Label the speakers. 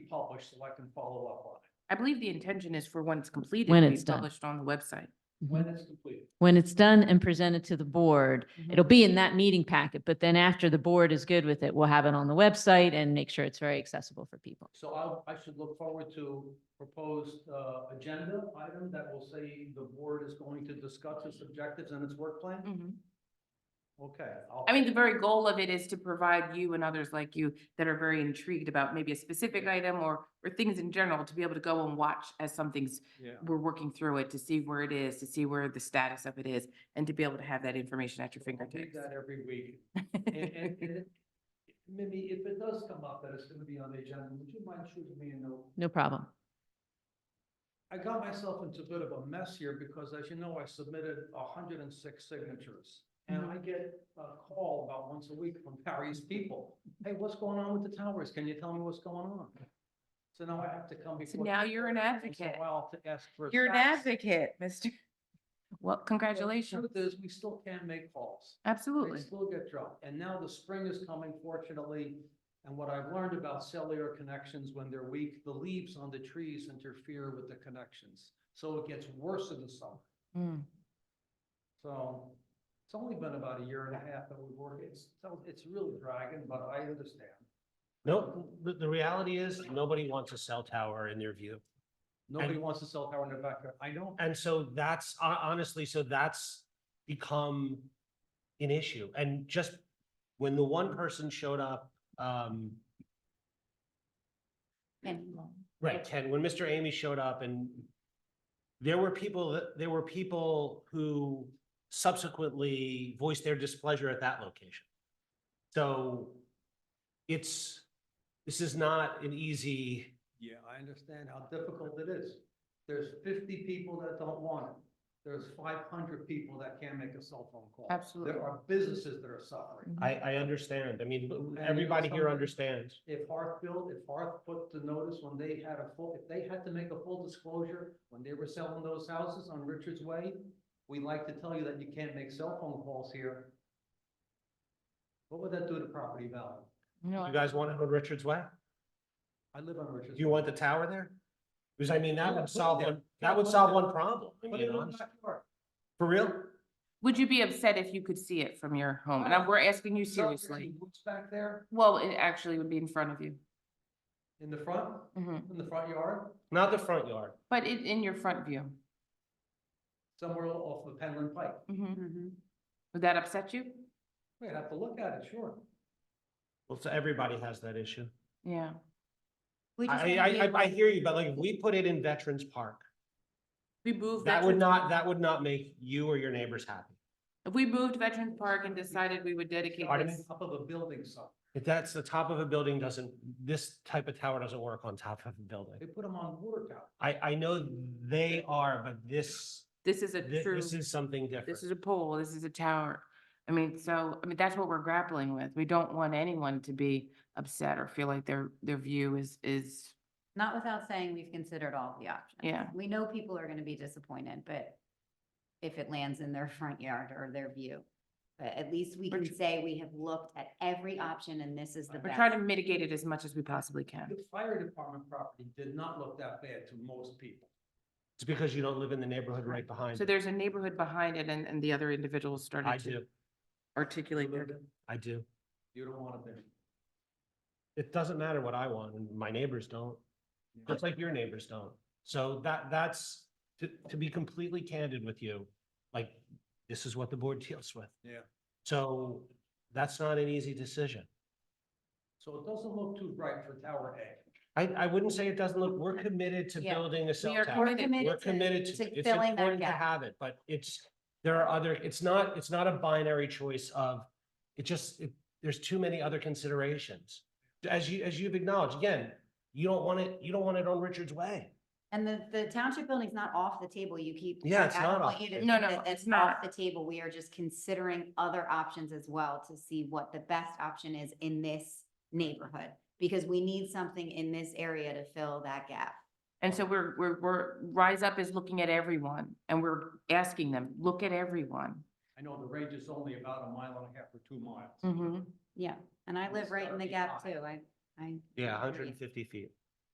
Speaker 1: published so I can follow up on it
Speaker 2: I believe the intention is for when it's completed.
Speaker 3: When
Speaker 2: to be
Speaker 3: it's done.
Speaker 2: Published on the website.
Speaker 1: when it's completed.
Speaker 3: When it's done and presented to the board, Mm-hmm. it'll be in that meeting packet, but then after the board is good with it, we'll have it on the website and make sure it's very accessible for people.
Speaker 1: So I'll, I should look forward to proposed, uh, agenda item that will say the board is going to discuss its objectives and its work plan?
Speaker 2: Mhm.
Speaker 1: Okay. I'll-
Speaker 2: I mean, the very goal of it is to provide you and others like you that are very intrigued about maybe a specific item or, or things in general to be able to go and watch as something's,
Speaker 1: Yeah.
Speaker 2: we're working through it to see where it is, to see where the status of it is, and to be able to have that information at your
Speaker 1: I read
Speaker 2: fingertips.
Speaker 1: that every week. And, and, and it- Mimi, if it does come up that it's gonna be on the agenda, would you mind shooting me a note?
Speaker 3: No problem.
Speaker 1: I got myself into a bit of a mess here because as you know, I submitted hundred and six signatures. And
Speaker 2: Mm-hmm.
Speaker 1: I get a call about once a week from various people. Hey, what's going on with the towers? Can you tell me what's going on? So now I have to come
Speaker 2: So
Speaker 1: before.
Speaker 2: now you're an
Speaker 1: once in a
Speaker 2: advocate.
Speaker 1: while to ask for.
Speaker 2: You're an
Speaker 1: facts.
Speaker 2: advocate, Mr. Well,
Speaker 1: But the
Speaker 2: congratulations.
Speaker 1: Truth is, we still can make calls.
Speaker 2: Absolutely.
Speaker 1: They still get dropped. And now the spring is coming fortunately. And what I've learned about cellular connections, when they're weak, the leaves on the trees interfere with the connections. So it gets worse in the summer.
Speaker 2: Mm.
Speaker 1: So it's only been about a year and a half that we've worked. It's, so it's really dragging, but I understand.
Speaker 4: No, the, the reality is, nobody wants a cell tower in their view.
Speaker 1: Nobody wants to sell power in their backyard. I know.
Speaker 4: And so that's hon- honestly, so that's become an issue. And just when the one person showed up, um, right, Ken, when Mr. Amy showed up and there were people that, there were people who subsequently voiced their displeasure at that location. So it's, this is not an easy,
Speaker 1: Yeah, I understand how difficult it is. There's fifty people that don't want it. There's five hundred people that can't make a cell phone call.
Speaker 2: Absolutely.
Speaker 1: There are businesses that are suffering.
Speaker 2: Mhm.
Speaker 4: I, I understand. I mean,
Speaker 1: And you know
Speaker 4: everybody here
Speaker 1: something?
Speaker 4: understands.
Speaker 1: If Hearth built, if Hearth put the notice when they had a full, if they had to make a full disclosure when they were selling those houses on Richards Way, we like to tell you that you can't make cell phone calls here. What would that do to property value? Oh,
Speaker 2: No,
Speaker 4: You guys want it on Richards Way?
Speaker 1: I live on Richards.
Speaker 4: Do you want the tower there? Because I mean, that
Speaker 1: Yeah, put
Speaker 4: would
Speaker 1: it
Speaker 4: solve
Speaker 1: there.
Speaker 4: one,
Speaker 1: Yeah,
Speaker 4: that would
Speaker 1: put it
Speaker 4: solve
Speaker 1: there.
Speaker 4: one problem. I
Speaker 1: Put
Speaker 4: mean,
Speaker 1: it in the
Speaker 4: honestly.
Speaker 1: backyard.
Speaker 4: For real?
Speaker 2: Would you be upset if you could see it from your home? And I- we're asking you
Speaker 1: Sell your
Speaker 2: seriously.
Speaker 1: Woods back there
Speaker 2: Well, it actually would be in front of you.
Speaker 1: in the front,
Speaker 4: Mm-hmm.
Speaker 2: Mhm.
Speaker 1: in the front yard,
Speaker 4: Not the front yard.
Speaker 2: But it, in your front view.
Speaker 1: somewhere off of Penland Pike.
Speaker 4: Mm-hmm.
Speaker 2: Mhm. Would that upset you?
Speaker 1: We'd have to look at it, sure.
Speaker 4: Well, so everybody has that issue.
Speaker 2: Yeah.
Speaker 4: I, I, I, I hear you, but like, if we put it in Veterans Park,
Speaker 2: We
Speaker 1: Oh,
Speaker 2: moved.
Speaker 4: that would
Speaker 2: Veterans
Speaker 4: not,
Speaker 2: Park-
Speaker 4: that would not make you or your neighbors happy.
Speaker 2: If we moved Veterans Park and decided we would dedicate
Speaker 4: Pardon me?
Speaker 2: this,
Speaker 1: Up of a building somewhere.
Speaker 4: If that's the top of a building doesn't, this type of tower doesn't work on top of a building.
Speaker 1: They put them on water tower.
Speaker 4: I, I know they are, but this,
Speaker 2: this is a
Speaker 4: thi-
Speaker 2: true,
Speaker 4: this is something different.
Speaker 2: this is a pole, this is a tower. I mean, so, I mean, that's what we're grappling with. We don't want anyone to be upset or feel like their, their view is, is,
Speaker 5: Not without saying we've considered all the options.
Speaker 2: Yeah.
Speaker 5: We know people are gonna be disappointed, but if it lands in their front yard or their view. But at least we
Speaker 2: We're
Speaker 5: can
Speaker 2: tr-
Speaker 5: say we have looked at every option and this is the
Speaker 2: we're trying to
Speaker 5: best.
Speaker 2: mitigate it as much as we possibly can.
Speaker 1: The fire department property did not look that bad to most people.
Speaker 4: It's because you don't live in the neighborhood right behind.
Speaker 2: So
Speaker 4: it.
Speaker 2: there's a neighborhood behind it and, and the other individuals
Speaker 4: I
Speaker 2: started to
Speaker 4: do,
Speaker 2: articulate their.
Speaker 4: I do.
Speaker 1: You don't want it there.
Speaker 4: It doesn't matter what I want, and my neighbors don't. Just like your neighbors don't. So that, that's, to, to be completely candid with you, like, this is what the board deals with.
Speaker 1: Yeah.
Speaker 4: So that's not an easy decision.
Speaker 1: So it doesn't look too bright for Tower A.
Speaker 4: I, I wouldn't say it doesn't look, we're committed to
Speaker 5: Yeah.
Speaker 4: building a cell
Speaker 2: are
Speaker 4: tower.
Speaker 2: committed
Speaker 4: We're committed to, it. it's
Speaker 5: filling that
Speaker 4: important to
Speaker 5: gap.
Speaker 4: have it, but it's, there are other, it's not, it's not a binary choice of, it just, it- there's too many other considerations. As you, as you've acknowledged, again, you don't want it, you don't want it on Richard's Way.
Speaker 5: And the, the township building's not off the table. You keep.
Speaker 4: Yeah, it's
Speaker 5: I don't
Speaker 4: not
Speaker 5: want
Speaker 4: off
Speaker 5: you to
Speaker 4: the
Speaker 5: think
Speaker 2: table. No,
Speaker 5: that
Speaker 2: no,
Speaker 5: that's
Speaker 2: it's not.
Speaker 5: Off the table. We are just considering other options as well to see what the best option is in this neighborhood. Because we need something in this area to fill that gap.
Speaker 2: And so we're, we're, we're, Rise Up is looking at everyone and we're asking them, look at everyone.
Speaker 1: I know the range is only about a mile and a half or two miles.
Speaker 2: Mhm.
Speaker 5: Yeah, and I
Speaker 1: And
Speaker 5: live
Speaker 1: it's
Speaker 5: right in
Speaker 1: gotta
Speaker 5: the
Speaker 1: be
Speaker 5: gap
Speaker 1: high.
Speaker 5: too. I, I.
Speaker 4: Yeah,
Speaker 5: agree.
Speaker 4: hundred and fifty feet.